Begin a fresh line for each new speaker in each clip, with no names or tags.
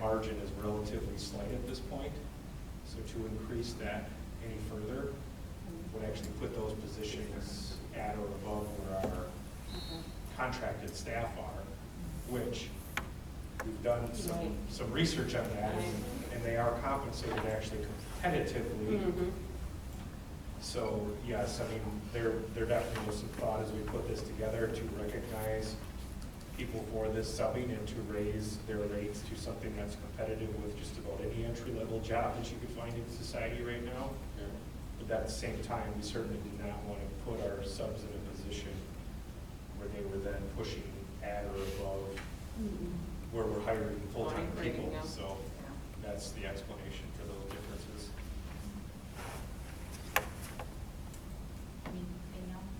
margin is relatively slight at this point. So to increase that any further would actually put those positions at or above where our contracted staff are, which we've done some, some research on that, and- and they are compensated actually
Mm-hmm.
competitively. So, yes, I mean, there, there definitely was some thought as we put this together to recognize people for this subbing and to raise their rates to something that's competitive with just about any entry-level job that you could find in society right now. But at the same time, we certainly did not want to put our subs in a position where they were then pushing at or above
Mm-hmm.
where we're hiring full-time
Right, right,
people.
yeah.
So that's the explanation for those differences.
Anything else?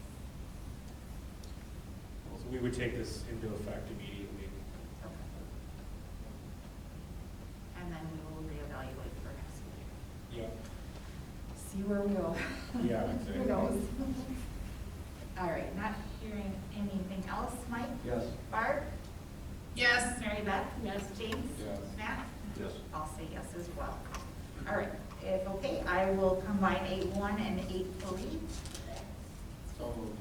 So we would take this into effect immediately.
Okay. And then we will reevaluate for next year.
Yeah,
See where we go.
Yeah,
Who
exactly.
knows? All right, not hearing anything else, Mike?
Yes.
Barb? Yes. Mary Beth? Yes. James?
Yes.
Matt?
Yes.
I'll say yes as well. All right, if okay, I will combine eight one and eight three,
So moved.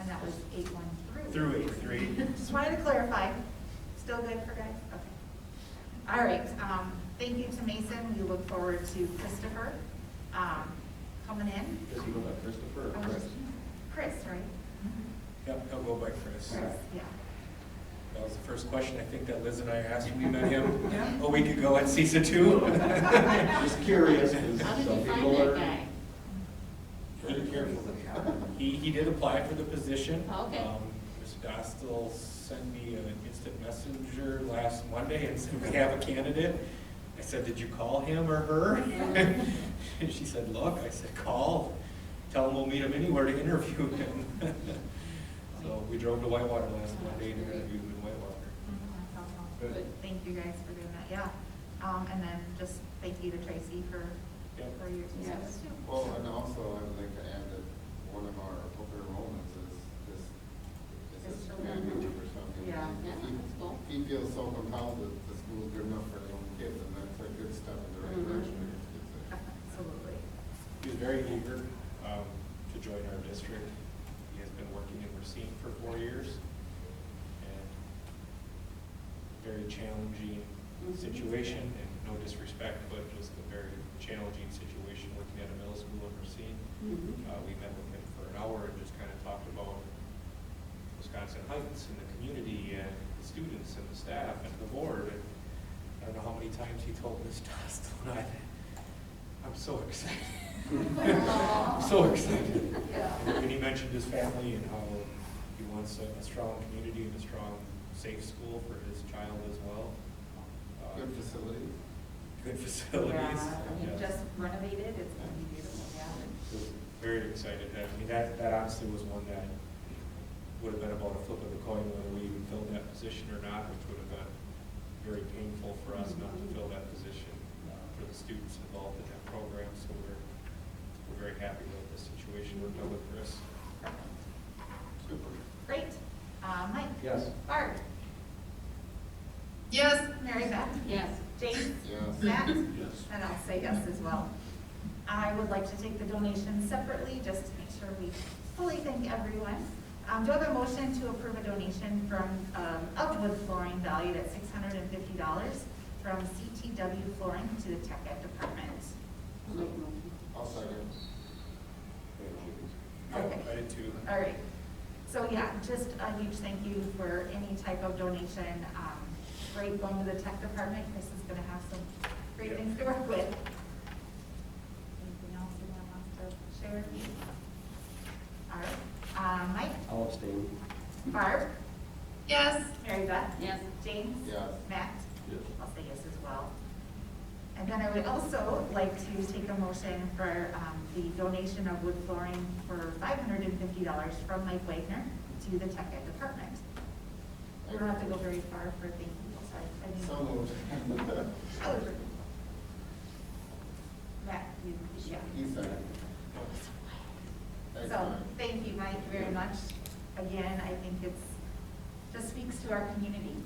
and that was eight one through.
through eight, three.
Just wanted to clarify. Still good for guys? Okay. All right, um, thank you to Mason. We look forward to Christopher, um, coming in.
Does he go by Christopher or
Oh,
Chris?
Chris, right?
Yep, he'll go by Chris.
Chris, yeah.
That was the first question I think that Liz and I asked when we met him a week ago at CISA two.
Just curious, because
How did
some
you find
people
that
are.
guy?
Very careful. He, he did apply for the position.
Oh, Okay.
Um, Mr. Dostal sent me an instant messenger last Monday and said, we have a candidate. I said, did you call him or her? And she said, look, I said, call, tell him we'll meet him anywhere to interview him. So we drove to Whitewater last Monday and interviewed him in Whitewater.
That's awesome.
Good.
Thank you guys for doing that, yeah. Um, and then just thank you to Tracy for,
Yep.
for your service
Yes.
too.
Well, and also I'd like to add that one of our open enrollments is this, is
Is
this
children.
family or something.
Yeah.
Yeah, that's cool.
He he feels so compelled that the school's good enough for his own kids, and that's a good step in the right
Mhm.
direction. It's a-
Absolutely.
He was very eager um, to join our district. He has been working in Racine for four years. and Very challenging
Mhm.
situation, and no disrespect, but just a very challenging situation working at a middle school in Racine. Uh, We met with him for an hour and just kind of talked about Wisconsin Heights and the community and the students and the staff and the board. And I don't know how many times he told Ms. Dostal, and I, I'm so excited. I'm so excited. And he mentioned his family and how he wants a a strong community and a strong, safe school for his child as well. Uh,
Good facility.
Good facilities.
Yeah,
Yes.
Just renovated, it's gonna be beautiful, yeah.
was very excited. I mean, that, that honestly was one that would have been about a flip of the coin whether we even filled that position or not, which would have been very painful for us not to fill that position uh, for the students involved in that program. So we're, we're very happy with the situation we're done with Chris.
Super.
Great. Uh, Mike?
Yes.
Barb? Yes. Mary Beth?
Yes.
James?
Yes.
Matt?
Yes.
And I'll say yes as well. I would like to take the donations separately, just to make sure we fully thank everyone. Um, do I have a motion to approve a donation from, um, Upwood Flooring valued at six hundred and fifty dollars from CTW Flooring to the Tech Ed Department?
I'll make a motion.
I'll second.
Okay.
I did too.
All right. So yeah, just a huge thank you for any type of donation. Um, Great going to the tech department. Chris is going to have some great
Yeah.
things to work with. Anything else you want us to share? All right. Uh, Mike?
I'll abstain.
Barb? Yes. Mary Beth?
Yes.
James?
Yes.
Matt?
Yes.
I'll say yes as well. And then I would also like to take a motion for um, the donation of wood flooring for five hundred and fifty dollars from Mike Wagner to the tech ed department. We don't have to go very far for thank you, sorry. I didn't-
So moved.
I was- Matt, you, yeah.
He seconded. Thanks,
So,
Mike.
thank you, Mike, very much. Again, I think it's, just speaks to our community